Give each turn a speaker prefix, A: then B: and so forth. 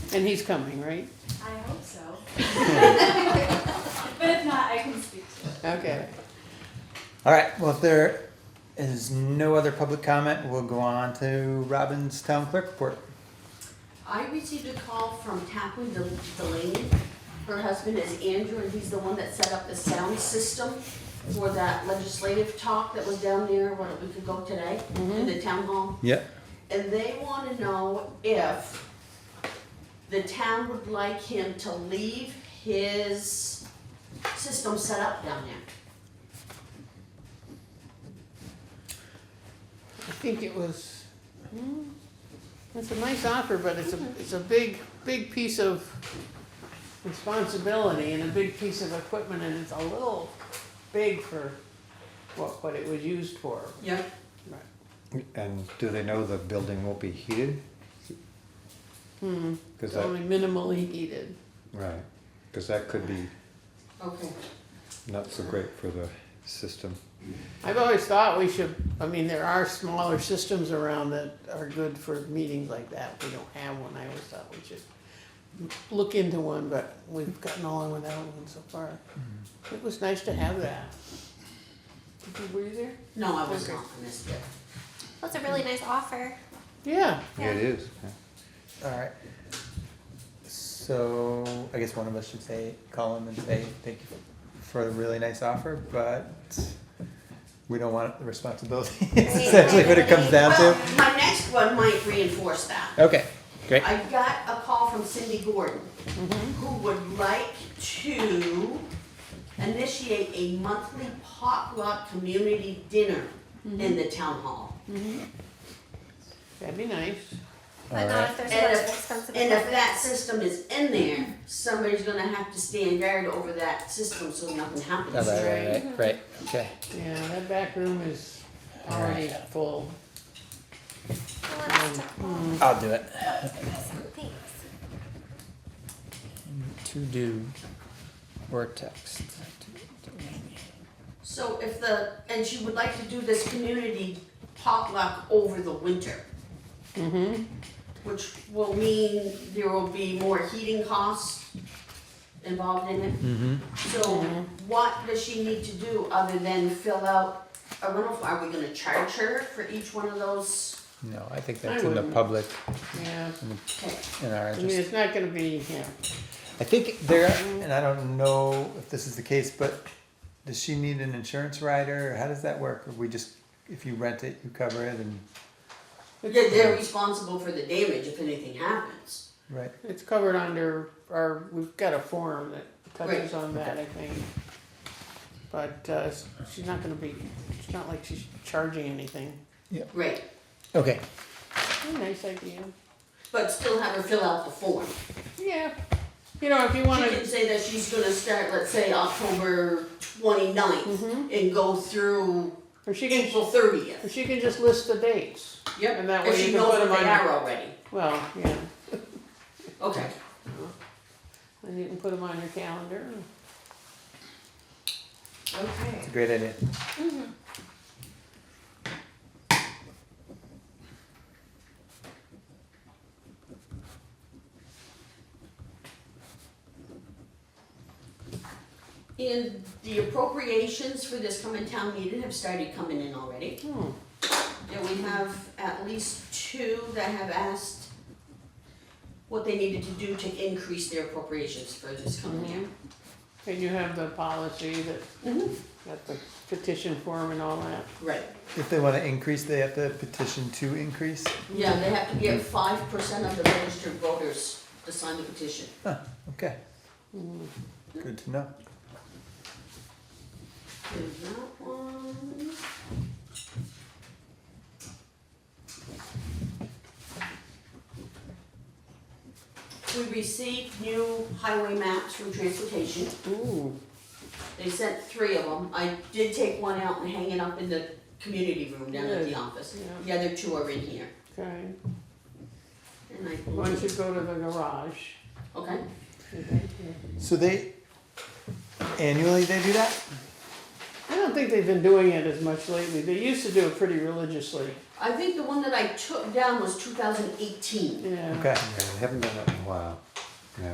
A: And he's coming, right?
B: I hope so. But if not, I can speak to it.
A: Okay.
C: All right, well, if there is no other public comment, we'll go on to Robin's town clerk report.
D: I received a call from Taplin Del- Delaney. Her husband is Andrew, and he's the one that set up the sound system for that legislative talk that was down there, what, a week ago today, in the town hall.
C: Yep.
D: And they wanna know if the town would like him to leave his system set up down there.
A: I think it was, hmm, it's a nice offer, but it's a, it's a big, big piece of responsibility and a big piece of equipment and it's a little big for what, what it was used for.
D: Yep.
A: Right.
C: And do they know the building won't be heated?
A: Hmm,
C: Because
A: it's
C: that,
A: only minimally heated.
C: right, because that could be
D: Okay.
C: not so great for the system.
A: I've always thought we should, I mean, there are smaller systems around that are good for meetings like that. We don't have one. I always thought we should look into one, but we've gotten along without one so far. It was nice to have that. Did you- Were you there?
D: No, I was
A: Okay.
D: not, I missed it.
E: That's a really nice offer.
A: Yeah,
C: Yeah, It is. All right.
F: So I guess one of us should say, call him and say, thank you for a really nice offer, but we don't want the responsibility. It's
E: Right,
F: essentially what it comes down
D: Well,
F: to.
D: my next one might reinforce that.
F: Okay, great.
D: I got a call from Cindy Gordon, who would like to initiate a monthly potluck community dinner in the town hall.
A: that'd be nice.
E: But not if there's a
D: And
E: bunch of
D: if,
E: expensive
D: and if
E: equipment.
D: that system is in there, somebody's gonna have to stand guard over that system so nothing
F: All
D: happens.
F: right, right, right, right, okay.
A: Yeah, that back room is already full.
E: Who wants to call?
D: Mm.
F: I'll do it.
E: Thanks.
F: To do or text.
D: So if the, and she would like to do this community potluck over the winter,
A: Mm-hmm.
D: which will mean there will be more heating costs involved in it.
F: Mm-hmm.
D: So what does she need to do other than fill out a rental form? Are we gonna charge her for each one of those?
F: No, I think
A: I
F: that's in the
A: wouldn't.
F: public,
A: Yeah,
D: Okay,
F: in our
A: I mean,
F: interest.
A: it's not gonna be, yeah,
F: I think there, and I don't know if this is the case, but does she need an insurance rider? or How does that work? Or we just, if you rent it, you cover it and,
D: They're, they're responsible for the damage if anything happens.
F: right?
A: it's covered under, our. we've got a form that touches on that, I think. But, uh, she's not gonna be, it's not like she's charging anything.
D: Right,
F: Okay,
A: Nice idea.
D: but still have her fill out the form.
A: Yeah, you know, if you
D: She
A: wanna,
D: can say that she's gonna start, let's say, October twenty-ninth
A: Mhm.
D: and go through
A: or she can,
D: April thirtieth.
A: or she can just list the dates.
D: Yep.
A: And that
D: If
A: way you
D: she
A: can put
D: knows where
A: them
D: they
A: on-
D: are already.
A: Well, yeah,
D: Okay.
A: and you can put them on your calendar.
D: Okay.
F: it's a great idea.
D: And the appropriations for this coming town meeting have started coming in already.
A: Hmm.
D: Yeah, we have at least two that have asked what they needed to do to increase their appropriations for this coming year.
A: And you have the policy that,
D: Mm-hmm.
A: got the petition form and all that.
D: Right,
F: If they wanna increase, they have to petition to increase?
D: yeah, they have to get five percent of the registered voters to sign the petition.
F: Huh, okay.
A: Mm.
F: Good to know.
D: There's that one. We received new highway maps from transportation.
A: Ooh.
D: They sent three of them. I did take one out and hang it up in the community room down at the
A: Good.
D: office.
A: Yeah.
D: The other two are in here.
A: Okay,
D: And I
A: why don't you go to the garage?
D: Okay.
F: So they, annually they do that?
A: I don't think they've been doing it as much lately. They used to do it pretty religiously.
G: I think the one that I took down was two thousand eighteen.
D: yeah.
H: Okay.
F: Yeah, we haven't done that in a while.